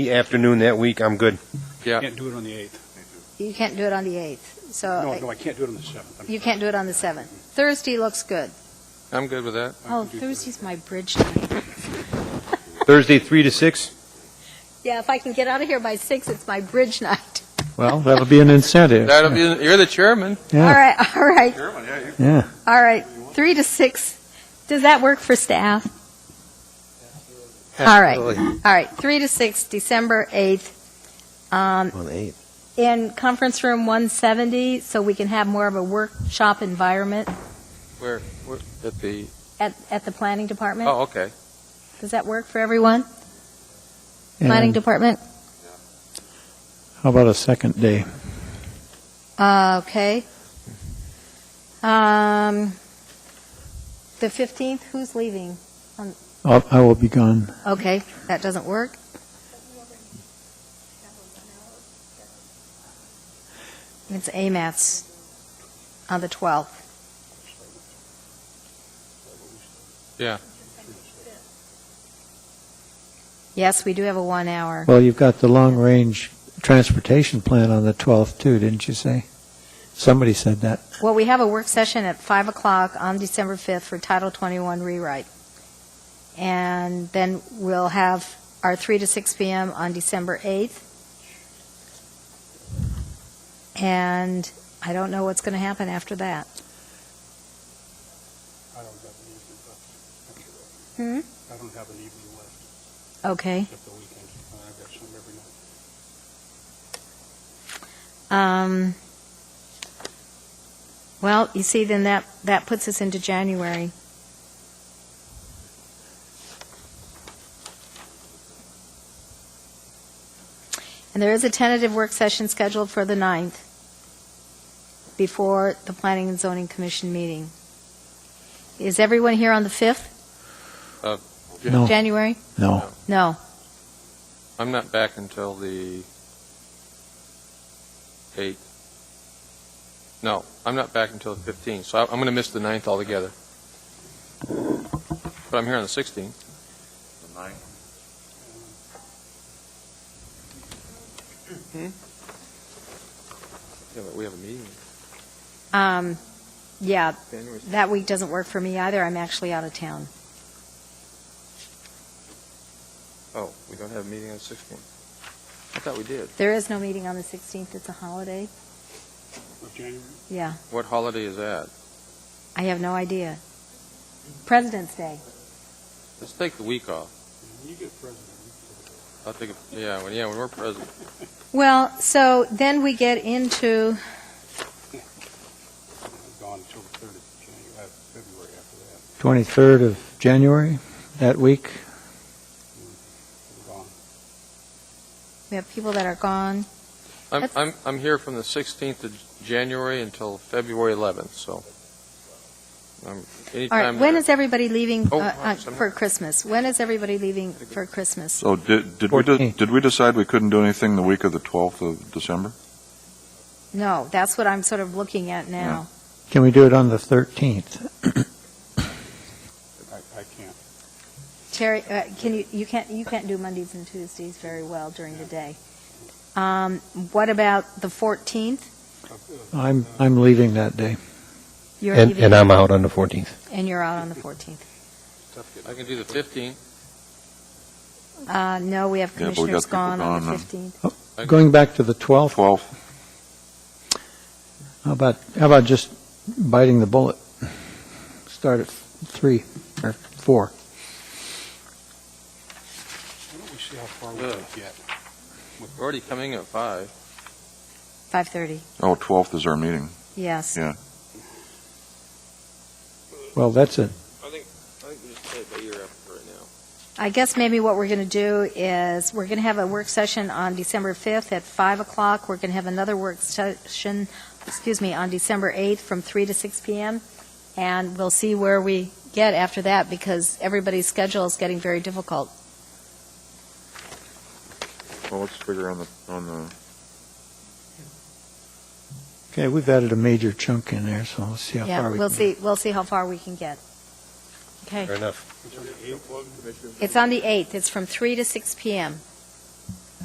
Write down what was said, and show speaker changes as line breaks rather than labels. afternoon that week, I'm good.
Yeah,
Can't do it on the 8th.
You can't do it on the 8th,
No, no,
so
I can't do it on the 7th.
you can't do it on the 7th. Thursday looks good.
I'm good with that.
Oh, Thursday's my bridge night.
Thursday, 3 to 6?
Yeah, if I can get out of here by 6, it's my bridge night.
Well, that'll be an incentive.
That'll be, you're the chairman.
All
Yeah,
right, all right,
yeah.
all right, 3 to 6. Does that work for staff? All right, all right, 3 to 6, December 8th, um,
On 8.
in Conference Room 170, so we can have more of a workshop environment
We're At the,
at, at the Planning Department.
oh, okay.
Does that work for everyone? Planning
And
Department?
how about a second day?
Uh, Okay. Um, The 15th, who's leaving?
I'll- I will be gone.
Okay, that doesn't work. It's AMATS on the 12th.
Yeah.
Yes, we do have a one hour.
Well, you've got the long-range transportation plan on the 12th, too, didn't you say? Somebody said that.
Well, we have a work session at 5 o'clock on December 5th for Title 21 rewrite. And then we'll have our 3 to 6 p.m. on December 8th. And I don't know what's going to happen after that.
I don't have an evening left.
Hmm?
I don't have an evening left
Okay.
except the weekend. Uh, I've got some every night.
Um, well, you see, then that, that puts us into January. And there is a tentative work session scheduled for the 9th before the Planning and Zoning Commission meeting. Is everyone here on the 5th,
No,
January?
no.
No.
I'm not back until the 8th. No, I'm not back until the 15th, so I- I'm going to miss the 9th altogether. But I'm here on the 16th. Yeah, but we have a meeting.
Um, yeah,
January.
that week doesn't work for me either. I'm actually out of town.
Oh, we don't have a meeting on the 16th. I thought we did.
There is no meeting on the 16th, it's a holiday.
Of January?
Yeah,
What holiday is that?
I have no idea. President's Day.
Let's take the week off.
You get president.
I'll take, a- yeah, when- yeah, when we're president.
Well, so then we get into,
I'm gone until the 3rd of January, uh, February after that.
23rd of January, that week?
I'm gone.
we have people that are gone.
I'm,
That's-
I'm, I'm here from the 16th of January until February 11th, so. um,
All right,
anytime
when
there.
is everybody leaving uh,
Oh,
uh,
sorry.
for Christmas? When is everybody leaving for Christmas?
So did, did we, de-
Fourteenth.
did we decide we couldn't do anything the week of the 12th of December?
No, that's what I'm sort of looking at now.
Can we do it on the 13th?
I, I can't.
Terry, uh, can you, you can't, you can't do Mondays and Tuesdays very well during the day. Um, What about the 14th?
I'm, I'm leaving that day.
You're
And,
leaving-
and I'm out on the 14th.
And you're out on the 14th.
I can do the 15th.
Uh, No, we have
Yeah, but we got
commissioners
people
gone on the
gone, huh?
15th.
I-
Going back to the 12th,
12th,
how about, how about just biting the bullet? Start at 3 or 4.
Why don't we see how far we can
Ugh.
get?
We're already coming at 5.
5:30,
oh, 12th is our meeting.
yes.
Yeah.
Well, that's it.
I think, I think we just play by ear after right now.
I guess maybe what we're going to do is, we're going to have a work session on December 5th at 5 o'clock. We're going to have another work session, excuse me, on December 8th from 3 to 6 p.m. And we'll see where we get after that, because everybody's schedule is getting very difficult.
Well, let's figure on the, on the,
Okay, we've added a major chunk in there, so let's see how
Yeah,
far we
we'll
can-
see, we'll see how far we can get. Okay,
Fair enough.
it's on the 8th, it's from 3 to 6 p.m.